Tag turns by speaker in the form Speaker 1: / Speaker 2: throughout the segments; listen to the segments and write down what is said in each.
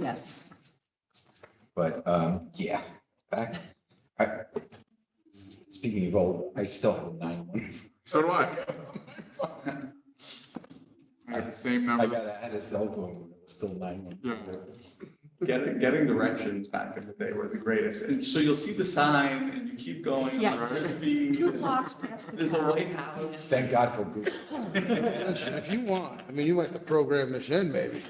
Speaker 1: Yes.
Speaker 2: But, um, yeah, back, I, speaking of old, I still have nine one.
Speaker 3: So do I. I have the same
Speaker 4: Uh-huh.
Speaker 2: I
Speaker 3: number.
Speaker 2: got, I had a cell phone, when it was still nine
Speaker 3: Yeah.
Speaker 2: one.
Speaker 5: Getting, getting directions back in the day were the greatest. And so you'll see the sign and you keep going.
Speaker 1: Yes. Two blocks past the
Speaker 5: There's a
Speaker 1: town.
Speaker 5: lighthouse.
Speaker 2: Thank God for Google.
Speaker 6: Listen, if you want, I mean, you might have to program this in, maybe.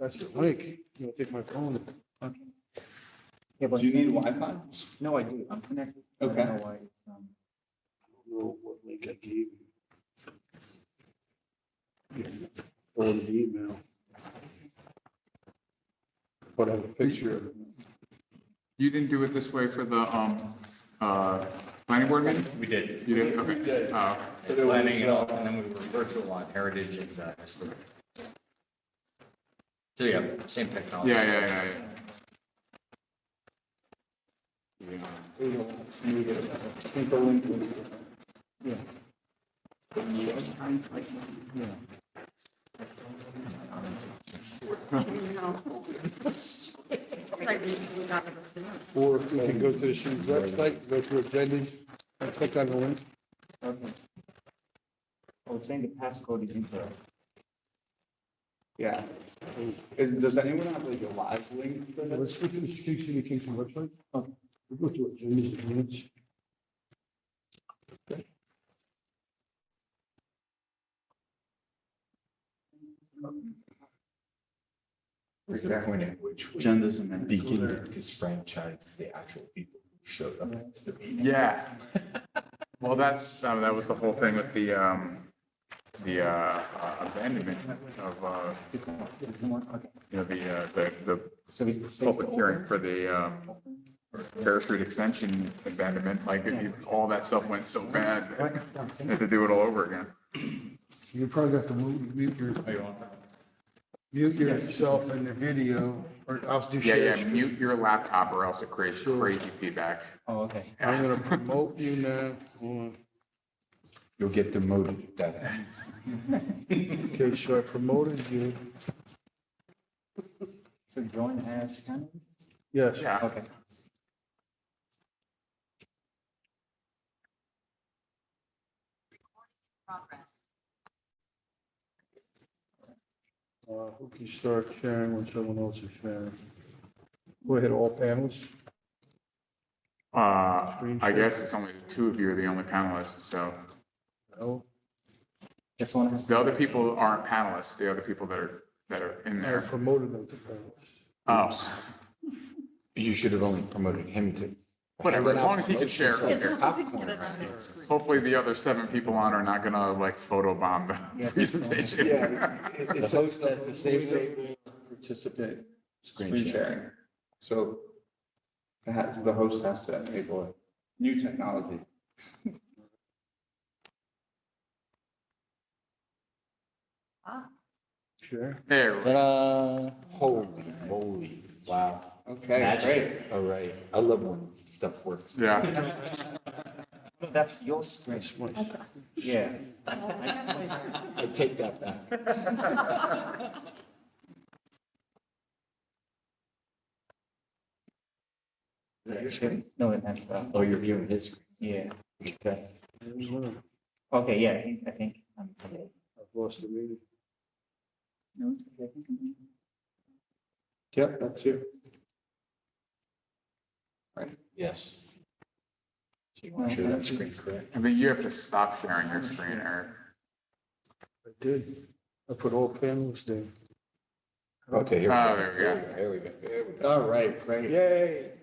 Speaker 6: That's the link. You know, take my phone.
Speaker 5: Do you need Wi-Fi?
Speaker 7: No, I do. I'm connected. I don't
Speaker 5: Okay.
Speaker 7: know why it's, um,
Speaker 6: Know what link I gave you. On the email. But I have a picture of it.
Speaker 3: You didn't do it this way for the, um, uh, planning board meeting?
Speaker 4: We did.
Speaker 3: You didn't, okay. Oh,
Speaker 4: Planning and all, and then we were virtual on heritage and uh, historic. So yeah, same
Speaker 3: yeah,
Speaker 4: technology.
Speaker 3: yeah, yeah, yeah. Yeah.
Speaker 6: Or you can go to the city's website, go to agendas, and click on the link.
Speaker 7: okay. Well, it's saying the passcode is incorrect.
Speaker 5: Yeah. Is, does anyone have like a live link for this?
Speaker 6: Let's go to the City Kingston website.
Speaker 7: Okay.
Speaker 6: We Go to agendas and minutes.
Speaker 2: Is that when it, which would
Speaker 5: Agendas and minutes.
Speaker 2: begin to disfranchise the actual people who showed up at the meeting?
Speaker 3: Yeah. Well, that's, um, that was the whole thing with the, um, the, uh, uh, abandonment of, uh, you know, the, uh, the, the
Speaker 7: So it's the sixth.
Speaker 3: public hearing for the, um, Fair Street Extension abandonment, like, it- all that stuff went so bad. that
Speaker 7: Right, down,
Speaker 3: they Had to do it all over again.
Speaker 6: You probably have to mute, mute your. Mute yourself in the video, or I'll do
Speaker 3: Yeah,
Speaker 6: share.
Speaker 3: yeah,
Speaker 6: screen.
Speaker 3: mute your laptop or else it creates
Speaker 6: Sure.
Speaker 3: crazy feedback.
Speaker 7: Oh, okay.
Speaker 6: I'm gonna promote you now. Hold on.
Speaker 2: You'll get demoted if that happens.
Speaker 6: Okay, so I promoted you.
Speaker 7: So join as kind
Speaker 6: Yes.
Speaker 3: Yeah,
Speaker 7: Okay.
Speaker 6: Uh, Who can start sharing when someone else is sharing? Go ahead, all panels.
Speaker 3: uh, I guess it's only the two of you are the only panelists, so
Speaker 6: No?
Speaker 7: Just want to.
Speaker 3: the other people aren't panelists, the other people that are, that are in
Speaker 6: I
Speaker 3: there.
Speaker 6: promoted them to panels.
Speaker 3: Oh.
Speaker 2: You should have only promoted him to.
Speaker 3: Whatever, as long as he can
Speaker 2: Promote yourself.
Speaker 3: share.
Speaker 1: Yes,
Speaker 3: Okay.
Speaker 1: as long as he can get it on his screen.
Speaker 3: Hopefully the other seven people on are not gonna like photobomb
Speaker 7: Yeah.
Speaker 3: the presentation.
Speaker 5: Yeah, it-
Speaker 2: The
Speaker 5: it's host
Speaker 2: host
Speaker 5: as
Speaker 2: has to
Speaker 5: the
Speaker 2: save
Speaker 5: same
Speaker 2: the
Speaker 5: thing. Participate.
Speaker 2: Screen share.
Speaker 5: So it has, the host has to enable it. New technology.
Speaker 6: Sure.
Speaker 3: There,
Speaker 7: Ta-da.
Speaker 2: Holy moly, wow.
Speaker 5: Okay, great.
Speaker 2: Magic. All right, I love when stuff works.
Speaker 3: yeah,
Speaker 7: No, That's your screen.
Speaker 6: That's my-
Speaker 7: Yeah.
Speaker 2: I take that back.
Speaker 7: Is that your screen? No, it has that.
Speaker 2: Oh, you're viewing his screen.
Speaker 7: Yeah. Okay.
Speaker 6: There's one. I've
Speaker 7: Okay, yeah, I think- I think. um, I'm-
Speaker 6: lost the meeting.
Speaker 7: No, it's okay. I think I'm-
Speaker 5: Yep, that's you.
Speaker 2: Yes. So you want to share that screen, correct?
Speaker 3: I think you have to stop sharing your screen, Eric.
Speaker 6: I did. I put all panels there.
Speaker 2: Okay, here.
Speaker 3: Oh, there we go.
Speaker 2: Here we go, here we go.
Speaker 5: All right, great.
Speaker 2: Yay.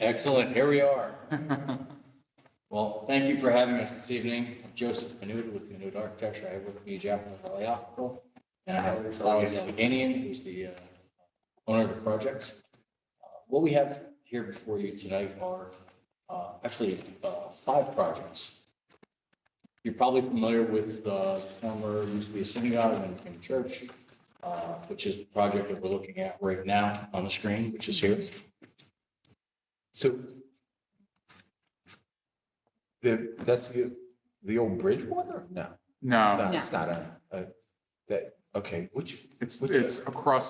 Speaker 4: Excellent, here we are. Well, thank you for having us this evening. I'm Joseph Menuda with Menuda Architecture. I have with me Jacqueline Valiakopo. And I have Alex Alleghenian, who's the uh, owner of the projects. Uh, What we have here before you tonight are uh, actually uh, five projects. You're probably familiar with the former, used to be a synagogue and became a church, uh, which is the project that we're looking at right now on the screen, which is here.
Speaker 2: So the, that's the, the old bridge one or no?
Speaker 3: No,
Speaker 2: No, it's not a, a, that, okay, which,
Speaker 3: it's, it's across